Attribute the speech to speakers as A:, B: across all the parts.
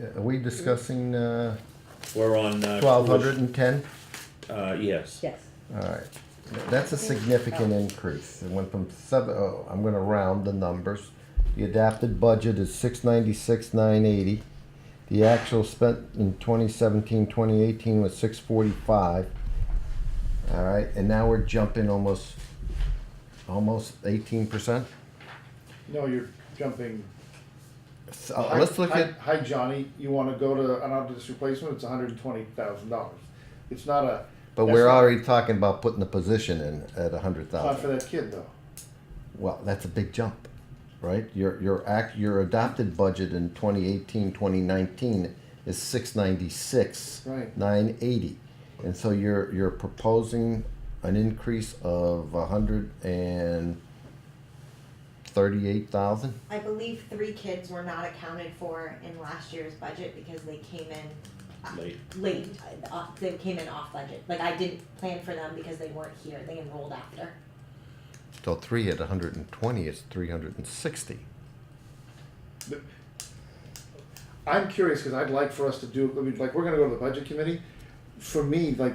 A: Uh, Are we discussing, uh,
B: We're on. uh,
A: twelve hundred and ten?
B: Uh, yes.
C: Yes.
A: Alright, that's a significant increase. It went from seven, oh, I'm gonna round the numbers. The adapted budget is six ninety-six, nine eighty. The actual spent in 2017-2018 was six forty-five. Alright, and now we're jumping almost, almost eighteen percent.
D: No, you're jumping.
A: So, uh, Oh, let's look
D: Hi-
A: at,
D: Hi, Johnny, you wanna go to an obvious replacement, it's hundred and twenty thousand dollars. It's not a.
A: but
D: that's
A: we're
D: not-
A: already talking about putting the position in at a hundred
D: it's Not for
A: thousand.
D: that kid though.
A: Well, that's a big jump, right? Your your act your adopted budget in 2018, 2019 is 696,
D: Right.
A: 980. And so you're you're proposing an increase of 138,000.
E: I believe three kids were not accounted for in last year's budget because they came in
B: Late.
E: late, uh, off, they came in off budget. Like I didn't plan for them because they weren't here, they enrolled after.
A: So 3 at 120 is 360.
D: I'm curious, cause I'd like for us to do, I mean, like, we're gonna go to the budget committee, for me, like.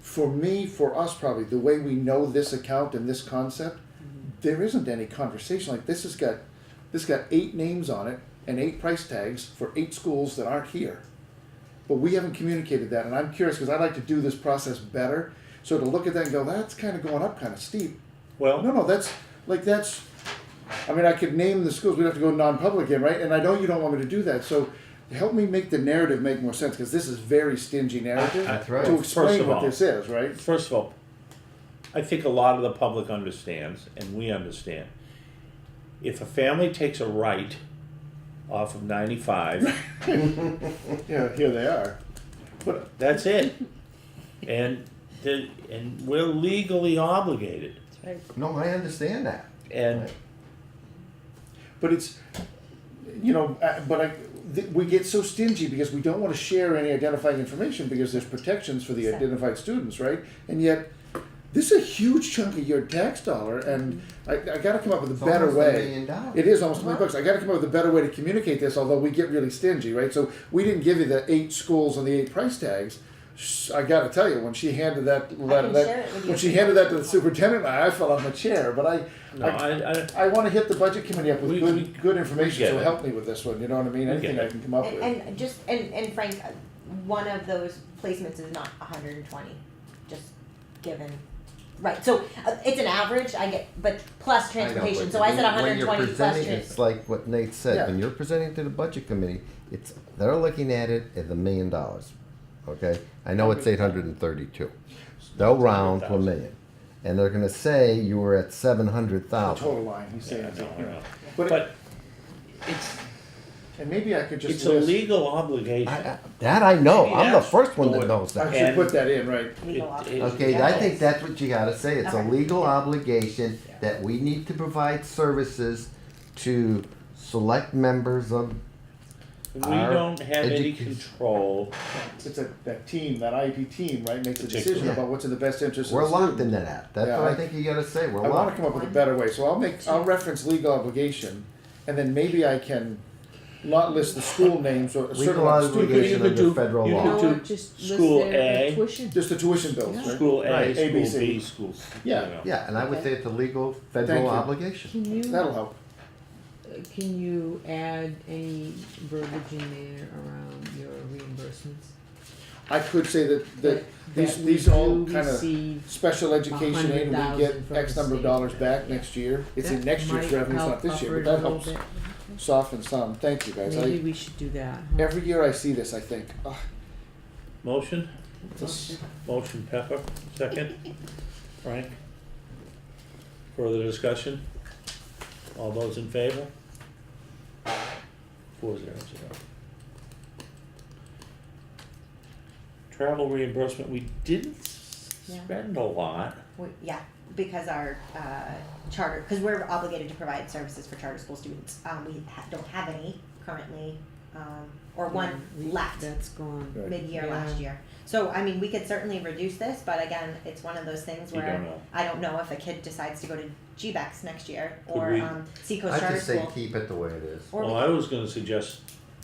D: For me, for us probably, the way we know this account and this concept, there isn't any conversation, like, this has got, this got eight names on it and eight price tags for eight schools that aren't here. But we haven't communicated that, and I'm curious, cause I'd like to do this process better, so to look at that and go, that's kinda going up kinda steep, no,
B: Well,
D: no, that's, like, that's, I mean, I could name the schools, we'd have to go non-public again, right? And I know you don't want me to do that, so help me make the narrative make more sense, cause this is very stingy narrative.
B: That's
A: right.
D: To
B: First
D: explain
B: of
D: what
B: all.
D: this is, right?
B: first of all, I think a lot of the public understands, and we understand. If a family takes a right off of ninety-five,
D: Yeah, here they are. But,
B: that's it. And the, and we're legally obligated.
A: No, I understand that.
B: And
A: Right.
D: but it's, you know, uh, but I, th- we get so stingy because we don't wanna share any identifying information because there's protections for the identified students, right? And yet, this is a huge chunk of your tax dollar, and I, I gotta come up with a better way. It is almost twenty bucks. I got to come up with a better way to communicate this, although we get really stingy, right? So we didn't give you the eight schools and the eight price tags. Sh- I got to tell you, when she handed that, letter,
E: can
D: that
E: share it with you.
D: when she handed that to the superintendent, I fell on my chair. But I,
B: no,
D: I,
B: I, I,
D: I want to hit the budget committee up with
B: We-
D: good,
B: we-
D: good
B: we
D: information.
B: get
D: So
B: it.
D: help me with this one. You know what I mean?
B: We get
D: Anything I
B: it.
D: can come up
E: And,
D: with.
E: and just, and, and Frank, uh, one of those placements is not hundred and twenty, just given, right, so uh, it's an average, I get, but plus transportation, so I said hundred and twenty
A: When
E: plus
A: you're
E: trans-
A: presenting, it's like what Nate
D: Yeah.
A: said, when you're presenting to the budget committee, it's, they're looking at it as a million dollars, okay? I know it's eight hundred and thirty-two, they'll round to a million, and they're gonna say you were at seven hundred
D: the
A: thousand.
D: total line. He's saying.
B: Oh. yeah,
D: it's-
B: no, no.
D: But,
B: But it's,
D: and maybe I could just
B: it's a
D: list.
B: legal
A: I,
B: obligation.
A: I, that I know,
B: Maybe
A: I'm the
B: that's
A: first one
B: the-
A: that knows
D: I
A: that.
D: should
B: And-
D: put that in, right?
E: legal
B: It-
E: office.
B: it-
A: Okay, I think that's what you gotta say, it's a
E: Okay.
A: legal obligation that we need to provide services to select members of
B: We
A: Our
B: don't have any
A: educa-
B: control.
D: It's a that team, that IEP team, right, makes a decision
B: Particular.
D: about what's in the best interest.
A: We're
D: of the
A: locked
D: student.
A: into that. That's
D: Yeah,
A: what I
D: I-
A: think you gotta say. We're
D: I want to
A: locked.
D: come up with a better way, so I'll make, I'll reference legal obligation, and then maybe I can not list the school names or a certain
A: Legal
D: amount of
B: you
A: obligation
D: students.
B: could
A: under
B: do-
A: federal
B: you
A: law.
B: could-
C: Or
B: to
C: just
B: school
C: list their
B: A.
C: tuition.
D: Just the tuition bills,
C: Yeah.
D: right?
B: School A,
D: Right, A, B,
B: school B,
D: C.
B: school C.
D: Yeah.
B: you know.
A: Yeah, and I would say it's a legal
D: Thank
A: federal
D: you.
A: obligation.
C: Can you,
D: That'll help.
C: uh, can you add any verbiage in there around your reimbursements?
D: I could say that, that these,
C: that
D: these
C: we
D: all
C: do
D: kind of
C: receive
D: special education aid, we get
C: 100,000 from
D: X
C: the
D: number of
C: state.
D: dollars back next year. It's in
C: That
D: next year's
C: might
D: revenue, it's
C: help
D: not this year,
C: buffer
D: but
C: it a
D: that
C: little
D: helps
C: bit.
D: soften some. Thank you, guys.
C: Maybe
D: I,
C: we should do that, huh?
D: every year I see this, I think, ah,
B: Motion,
D: this,
B: motion Pepper, second. Frank? Further discussion? All those in favor? Four zero zero. Travel reimbursement, we didn't
E: Yeah.
B: spend a lot.
E: We, yeah, because our uh, charter, because we're obligated to provide services for charter school students. Um, we ha- don't have any currently, um, or one
C: Yeah, we-
E: left
C: That's gone.
D: Right.
E: mid-year
C: Yeah.
E: last year. So I mean, we could certainly reduce this, but again, it's one of those things
B: You
E: where
B: don't know.
E: I don't know if a kid decides to go to GBEX next year
B: Could
E: or
B: we-
E: um, Seacoast
A: I
E: Charter
A: just say
E: School.
A: keep it the way it is.
E: Or we
B: Well, I was gonna suggest